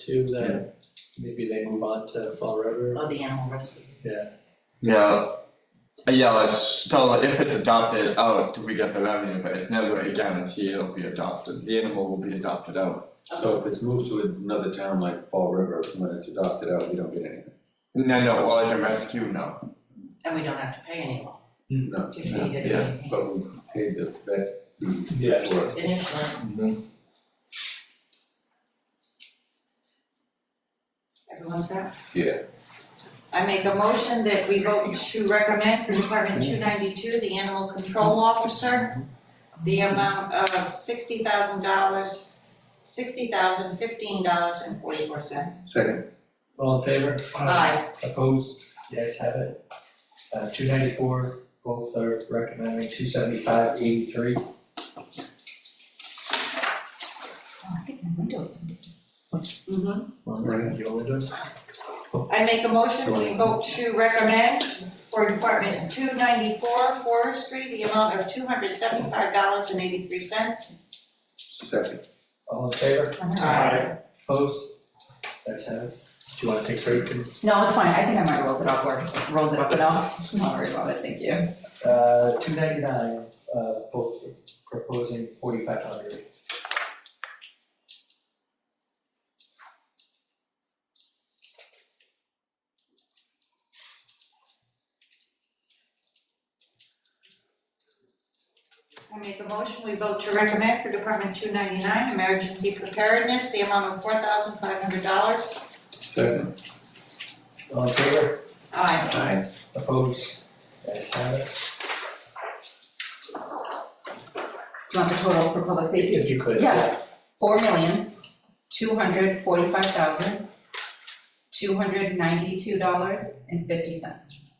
too, that maybe they move on to Fall River. of the animal rescue. Yeah, Uh, yeah, like, still, if it's adopted out, we get the revenue, but it's never a guarantee it'll be adopted, the animal will be adopted out. So if it's moved to another town like Fall River, when it's adopted out, we don't get anything. No, no, well, like a rescue, no, And we don't have to pay anyone No, to feed it or yeah, anything. but we paid the vet fees Yeah. for it. Initially, everyone's there? Yeah. I make a motion that we vote to recommend for Department two ninety-two, the animal control officer, the amount of sixty thousand dollars, sixty thousand fifteen dollars and forty-four cents. Second, All in favor? Aye. Opposed? The ayes have it. Uh, two ninety-four, both are recommending two seventy-five, eighty-three. Mhm. Right. Your windows? I make a motion, we vote to recommend for Department two ninety-four forestry, the amount of two hundred seventy-five dollars and eighty-three cents. second, All in favor? Aye. Opposed? The ayes have it. Do you wanna take a break? No, it's fine, I think I might have rolled it up or rolled it up enough, don't worry about it, thank you. Uh, two ninety-nine, uh, both are proposing forty-five hundred. I make a motion, we vote to recommend for Department two ninety-nine, emergency preparedness, the amount of four thousand five hundred dollars. second. All in favor? Aye. Aye. Opposed? The ayes have it. Do you want the total for public safety? If you could. Yeah. Four million, two hundred forty-five thousand, two hundred ninety-two dollars and fifty cents.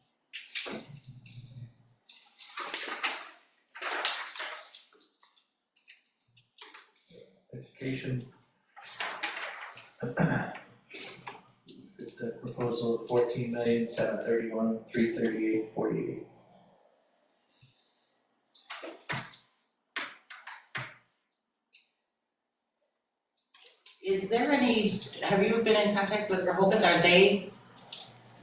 Education. The proposal of fourteen million, seven thirty-one, three thirty-eight, forty-eight. Is there any, have you been in contact with Rehoboth, are they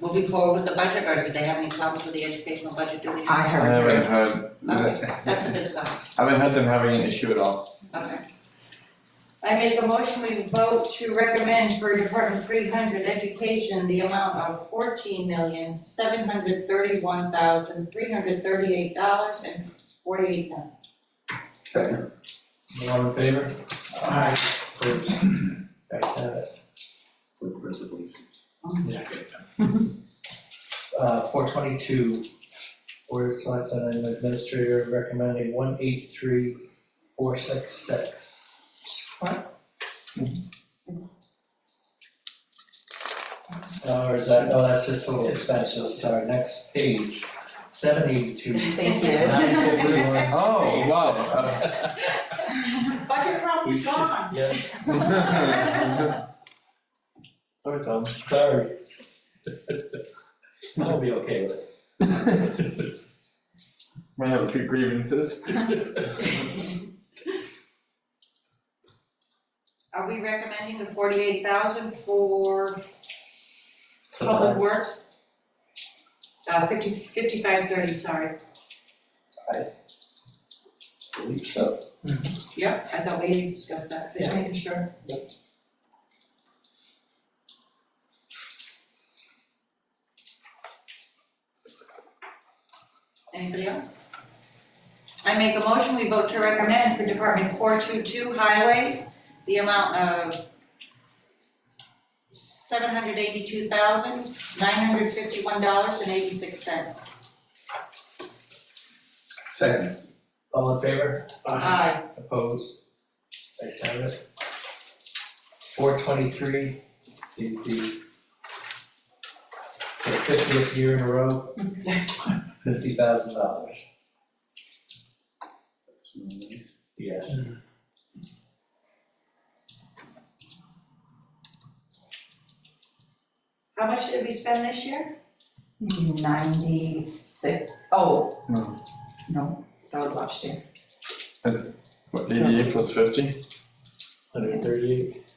moving forward with the budget, or do they have any problems with the educational budget doing? I I heard. haven't heard, Oh, That's a I good sign, haven't heard them having an issue at all. okay. I make a motion, we vote to recommend for Department three hundred education, the amount of fourteen million, seven hundred thirty-one thousand, three hundred thirty-eight dollars and forty-eight cents. Second, All in favor? Aye. Opposed? The ayes have it. with reservations. Uh, four twenty-two, Board of Selectmen and Administrator recommending one eight three, four six six. Or is that, oh, that's just total expenses, sorry, next page, seven eighty-two, Thank nine you. fifty-one. Oh, wow. We Budget problem's should- gone. Yeah, Uh, there it comes, sorry. I'll be okay with Might have a few grievances. it. Are we recommending the forty-eight thousand for public Sometimes, works? Uh, fifty, fifty-five thirty, sorry. I believe so. Yep, I thought we had discussed that, just Yeah. making sure. Anybody else? I make a motion, we vote to recommend for Department four two two highways, the amount of seven hundred eighty-two thousand, nine hundred fifty-one dollars and eighty-six cents. Second, All in favor? Aye. Opposed? Ayes have it. Four twenty-three, the, the for the fiftieth year in a row, fifty thousand dollars. Yes. How much did we spend this year? Ninety-six, oh, No. no, that was last year. That's, what, eighty-eight plus fifty? Hundred thirty-eight.